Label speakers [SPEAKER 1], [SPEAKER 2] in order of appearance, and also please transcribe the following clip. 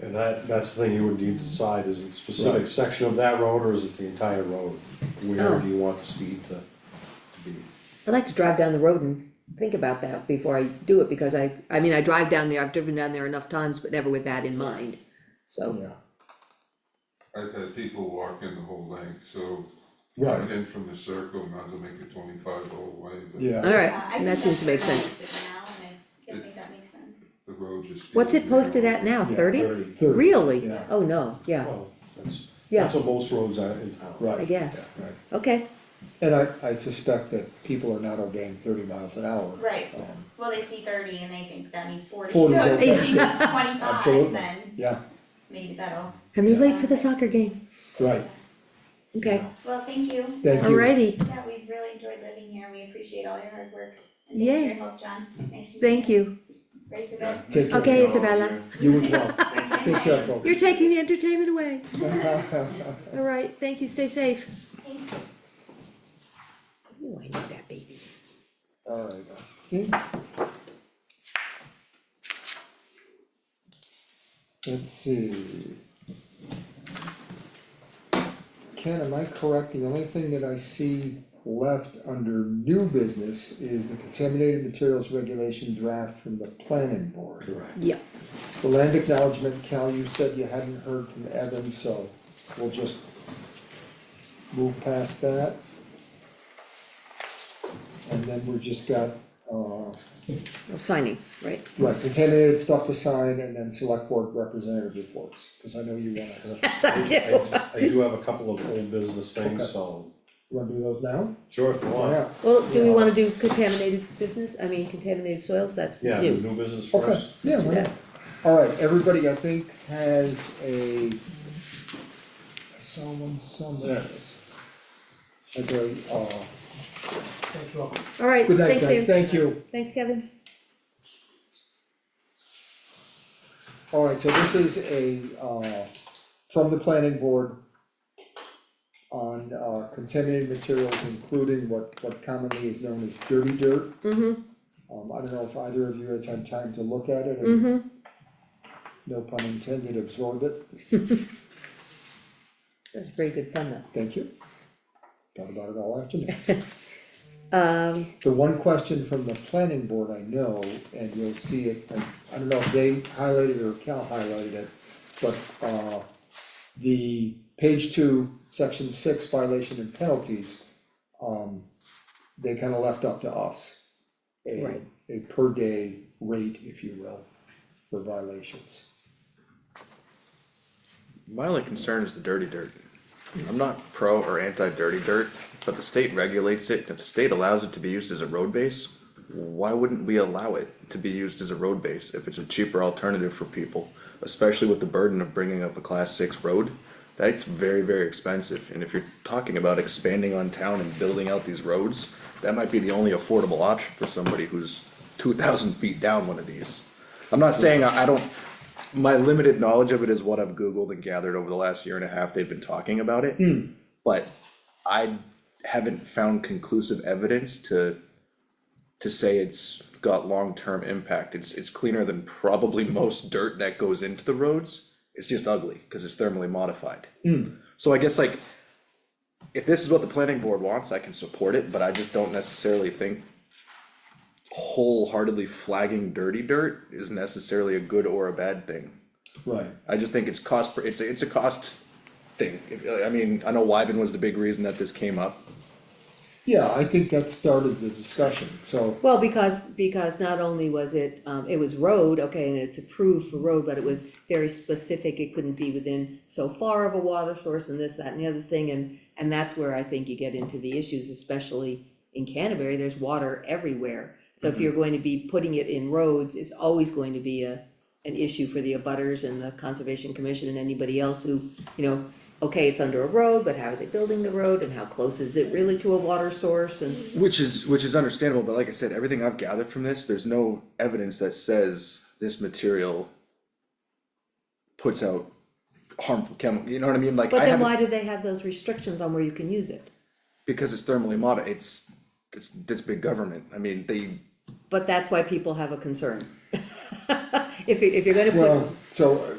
[SPEAKER 1] And that, that's the thing you would need to decide, is it a specific
[SPEAKER 2] Right.
[SPEAKER 1] section of that road or is it the entire road?
[SPEAKER 3] Oh.
[SPEAKER 1] Where do you want the speed to, to be?
[SPEAKER 3] I like to drive down the road and think about that before I do it, because I, I mean, I drive down there, I've driven down there enough times, but never with that in mind. So,
[SPEAKER 2] Yeah,
[SPEAKER 4] I've had people walk in the whole length, so
[SPEAKER 2] right,
[SPEAKER 4] coming in from the circle, might as well make it twenty-five the whole way, but
[SPEAKER 2] yeah,
[SPEAKER 3] alright,
[SPEAKER 5] Yeah, I think
[SPEAKER 3] that seems to make
[SPEAKER 5] that's
[SPEAKER 3] sense.
[SPEAKER 5] realistic now, and I, I think that makes sense.
[SPEAKER 4] the road just.
[SPEAKER 3] What's it posted at now,
[SPEAKER 2] Yeah,
[SPEAKER 3] thirty?
[SPEAKER 1] Thirty.
[SPEAKER 2] thirty.
[SPEAKER 3] Really?
[SPEAKER 2] Yeah.
[SPEAKER 3] Oh, no, yeah,
[SPEAKER 1] Well, that's,
[SPEAKER 3] Yeah.
[SPEAKER 1] that's what most roads are in town.
[SPEAKER 2] right.
[SPEAKER 3] I guess.
[SPEAKER 2] yeah, right.
[SPEAKER 3] Okay,
[SPEAKER 2] And I, I suspect that people are not obeying thirty miles an hour.
[SPEAKER 5] Right,
[SPEAKER 2] Um,
[SPEAKER 5] well, they see thirty and they think that means forty, so
[SPEAKER 2] 40 is
[SPEAKER 5] if
[SPEAKER 2] okay.
[SPEAKER 5] they see twenty-five,
[SPEAKER 2] Absolutely,
[SPEAKER 5] then
[SPEAKER 2] yeah,
[SPEAKER 5] maybe that'll,
[SPEAKER 3] and they're late for the soccer game,
[SPEAKER 2] right,
[SPEAKER 3] okay,
[SPEAKER 2] Yeah.
[SPEAKER 5] well, thank you.
[SPEAKER 2] Thank you.
[SPEAKER 3] alrighty,
[SPEAKER 5] Yeah, we really enjoyed living here, we appreciate all your hard work, and
[SPEAKER 3] Yay.
[SPEAKER 5] thanks for your help, John, nice to meet you.
[SPEAKER 3] thank you.
[SPEAKER 5] Ready for bed?
[SPEAKER 2] Take care.
[SPEAKER 3] Okay, Isabella,
[SPEAKER 2] You as well. Take care, folks.
[SPEAKER 3] you're taking the entertainment away. Alright, thank you, stay safe.
[SPEAKER 5] Thanks.
[SPEAKER 3] Ooh, I need that baby.
[SPEAKER 2] Alright, okay. Let's see. Ken, am I correct, the only thing that I see left under new business is the contaminated materials regulation draft from the planning board?
[SPEAKER 1] Correct.
[SPEAKER 3] Yeah,
[SPEAKER 2] The land acknowledgement, Cal, you said you hadn't heard from Evan, so we'll just move past that. And then we've just got, uh,
[SPEAKER 3] no signing, right?
[SPEAKER 2] right, contaminated stuff to sign and then select board representative reports, cause I know you wanna, you
[SPEAKER 3] Yes, I do.
[SPEAKER 1] I I do have a couple of old business things,
[SPEAKER 2] Okay.
[SPEAKER 1] so,
[SPEAKER 2] wanna do those now?
[SPEAKER 1] sure, if you
[SPEAKER 2] Why
[SPEAKER 1] want.
[SPEAKER 2] not?
[SPEAKER 3] Well, do we wanna do contaminated business, I mean contaminated soils, that's
[SPEAKER 1] Yeah, do
[SPEAKER 3] new.
[SPEAKER 1] new business
[SPEAKER 2] Okay,
[SPEAKER 1] first.
[SPEAKER 2] yeah, why not? Alright, everybody, I think, has a. I saw one somewhere. As a, uh,
[SPEAKER 3] Alright,
[SPEAKER 2] good night,
[SPEAKER 3] thanks
[SPEAKER 2] guys,
[SPEAKER 3] Ian,
[SPEAKER 2] thank you.
[SPEAKER 3] thanks Kevin.
[SPEAKER 2] Alright, so this is a, uh, from the planning board on, uh, contaminated materials, including what, what commonly is known as dirty dirt.
[SPEAKER 3] Mm-hmm,
[SPEAKER 2] Um, I don't know if either of you has had time to look at it and,
[SPEAKER 3] mm-hmm,
[SPEAKER 2] no pun intended, absorb it,
[SPEAKER 3] that's very good fun though.
[SPEAKER 2] thank you. Thought about it all afternoon.
[SPEAKER 3] Um,
[SPEAKER 2] The one question from the planning board I know, and you'll see it, and I don't know if they highlighted it or Cal highlighted it, but, uh, the page two, section six violation and penalties, um, they kinda left up to us. A,
[SPEAKER 3] Right.
[SPEAKER 2] a per day rate, if you will, for violations.
[SPEAKER 6] My only concern is the dirty dirt. I'm not pro or anti dirty dirt, but the state regulates it, and if the state allows it to be used as a road base, why wouldn't we allow it to be used as a road base if it's a cheaper alternative for people? Especially with the burden of bringing up a class six road, that's very, very expensive, and if you're talking about expanding on town and building out these roads, that might be the only affordable option for somebody who's two thousand feet down one of these. I'm not saying I, I don't, my limited knowledge of it is what I've Googled and gathered over the last year and a half they've been talking about it. But I haven't found conclusive evidence to to say it's got long-term impact. It's it's cleaner than probably most dirt that goes into the roads. It's just ugly because it's thermally modified. So I guess like if this is what the planning board wants, I can support it, but I just don't necessarily think wholeheartedly flagging dirty dirt is necessarily a good or a bad thing.
[SPEAKER 2] Right.
[SPEAKER 6] I just think it's cost, per- it's a, it's a cost thing. If- I mean, I know Wyven was the big reason that this came up.
[SPEAKER 2] Yeah, I think that started the discussion, so,
[SPEAKER 3] well, because, because not only was it, um, it was road, okay, and it's approved for road, but it was very specific, it couldn't be within so far of a water source and this, that, and the other thing, and, and that's where I think you get into the issues, especially in Canterbury, there's water everywhere. So if you're going to be putting it in roads, it's always going to be a, an issue for the abutters and the conservation commission and anybody else who, you know, okay, it's under a road, but how are they building the road, and how close is it really to a water source, and
[SPEAKER 6] Which is, which is understandable, but like I said, everything I've gathered from this, there's no evidence that says this material puts out harmful chemical, you know what I mean? Like,
[SPEAKER 3] But
[SPEAKER 6] I
[SPEAKER 3] then
[SPEAKER 6] haven't,
[SPEAKER 3] why do they have those restrictions on where you can use it?
[SPEAKER 6] because it's thermally modi, it's, it's, it's big government. I mean, they,
[SPEAKER 3] But that's why people have a concern. If you, if you're gonna put
[SPEAKER 2] well, so